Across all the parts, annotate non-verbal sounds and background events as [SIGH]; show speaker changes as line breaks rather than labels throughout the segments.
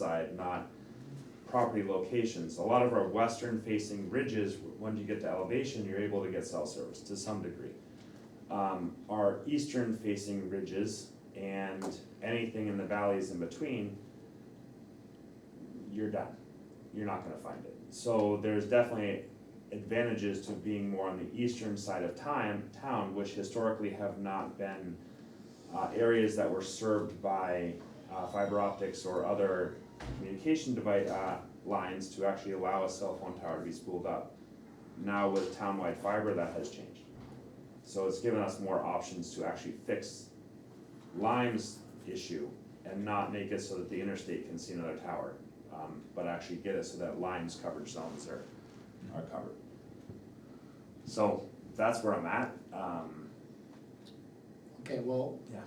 side, not property locations. A lot of our western facing ridges, when you get to elevation, you're able to get cell service to some degree. Um, our eastern facing ridges and anything in the valleys in between, you're done. You're not gonna find it. So there's definitely advantages to being more on the eastern side of time, town, which historically have not been uh, areas that were served by uh, fiber optics or other communication device, uh, lines to actually allow a cell phone tower to be spooled up. Now with townwide fiber, that has changed. So it's given us more options to actually fix Lime's issue and not make it so that the interstate can see another tower. Um, but actually get it so that Lime's coverage zones are, are covered. So that's where I'm at, um,
Okay, well,
yeah.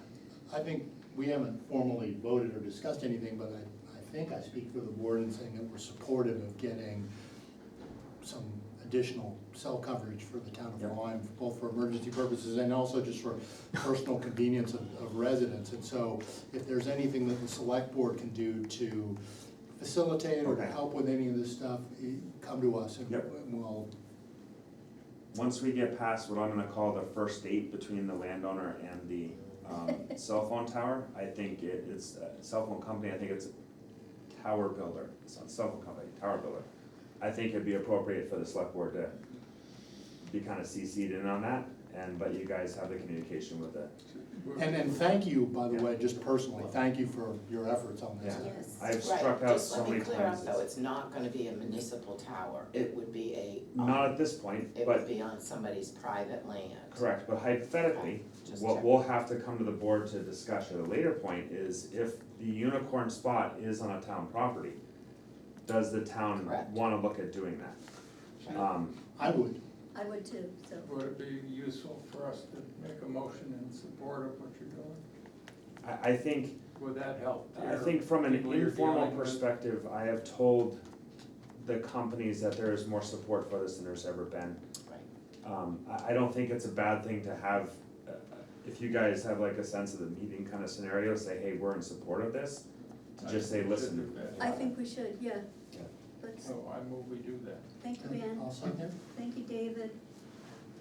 I think we haven't formally voted or discussed anything, but I, I think I speak for the board in saying that we're supportive of getting some additional cell coverage for the town
Yeah.
of Lyme, both for emergency purposes and also just for personal convenience of, of residents. And so if there's anything that the select board can do to facilitate or to
Okay.
help with any of this stuff, eh, come to us and
Yep.
we'll,
Once we get past what I'm gonna call the first date between the landowner and the,
[LAUGHS]
um, cell phone tower, I think it, it's a cell phone company, I think it's a tower builder, it's not cell phone company, tower builder. I think it'd be appropriate for the select board to be kinda CC'd in on that and let you guys have the communication with it.
and then thank you, by the
Yeah.
way, just personally, thank you for your efforts on this.
Yeah.
Yes.
I've
Right,
struck out so many times.
Just let me clear up though,
it's-
it's not gonna be a municipal tower, it would be a. um,
Not at this point,
It
but
would be on somebody's private land.
Correct, but hypothetically,
Oh, Just
what
check.
we'll have to come to the board to discuss at a later point is if the unicorn spot is on a town property, does the town
Correct.
wanna look at doing that?
Right.
Um,
I would.
I would too, so.
Would it be useful for us to make a motion in support of what you're doing?
I, I think,
Would that help?
I think from an
People you're
informal
dealing with?
perspective, I have told the companies that there is more support for this than there's ever been.
Right.
Um, I, I don't think it's a bad thing to have, uh, if you guys have like a sense of the meeting kind of scenario, say, hey, we're in support of this. To
I
just say,
think we should
listen,
do that.
I think we should, yeah.
Yeah.
Let's,
So Oh, I move we do that.
thank you, Ann.
I'll second.
Thank you, David.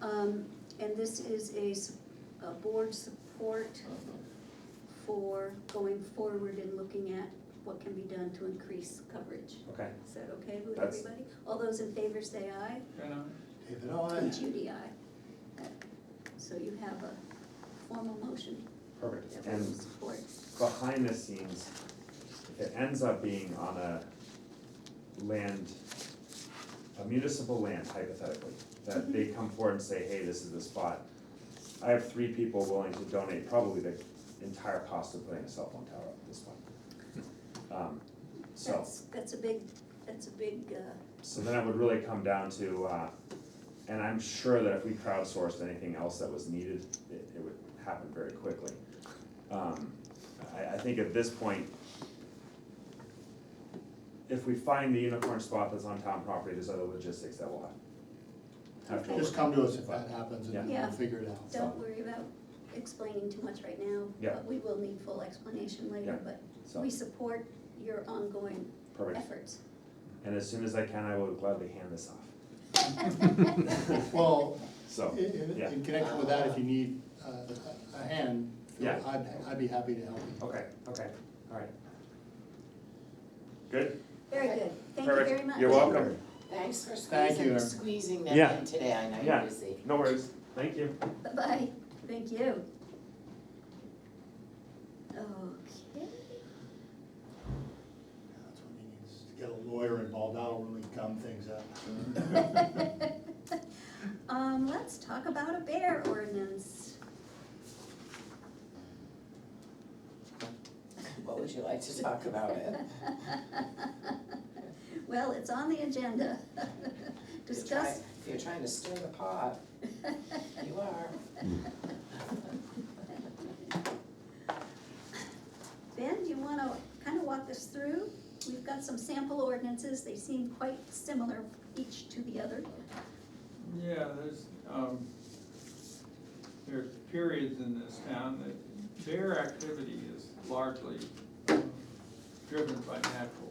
Um, and this is a, s- a board support for going forward and looking at what can be done to increase coverage.
Okay,
Is that okay with
That's-
everybody? All those in favor say aye,
You know,
David, aye.
and Judy aye. So you have a formal motion
perfect.
that we will
And
support.
behind the scenes, if it ends up being on a land, a municipal land hypothetically, that they come forward and say, hey, this is the spot. I have three people willing to donate probably the entire cost of putting a cell phone tower up at this point. Um, so,
That's, that's a big, that's a big, uh,
so then it would really come down to, uh, and I'm sure that if we crowdsourced anything else that was needed, it, it would happen very quickly. Um, I, I think at this point, if we find the unicorn spot that's on town property, there's other logistics that we'll have. have to
Okay.
Just come to us if that happens and
Yeah.
we'll figure it
[LAUGHS]
out.
Don't worry about explaining too much right now.
Yeah.
But we will need full explanation later, but
So,
we support your ongoing
perfect,
efforts.
and as soon as I can, I will gladly hand this off,
Well,
so,
in, in-
yeah.
in connection with that, if you need uh, a, a hand, Phil,
Yeah.
I'd, I'd be happy
[LAUGHS]
to help you.
okay, okay, all right. Good,
Very good, thank you
Perfect.
very much.
You're welcome,
Thanks for
Thank you.
squeezing, squeezing
Yeah.
that in today, I know
Yeah.
you're busy.
no worries, thank you.
Bye-bye, thank you. Okay,
That's when you need to get a lawyer involved, that'll really gum things up.
[LAUGHS]
[LAUGHS] um, let's talk about a bear ordinance.
What would you like to talk [LAUGHS] about it?
[LAUGHS] Well, it's on the agenda.
If you're
Discuss.
trying- If you're trying to stir the pot,
[LAUGHS]
you are.
Ben, do you wanna kinda walk us through? We've got some sample ordinances, they seem quite similar each to the other.
Yeah, there's, um, there are periods in this town that their activity is largely um, driven by natural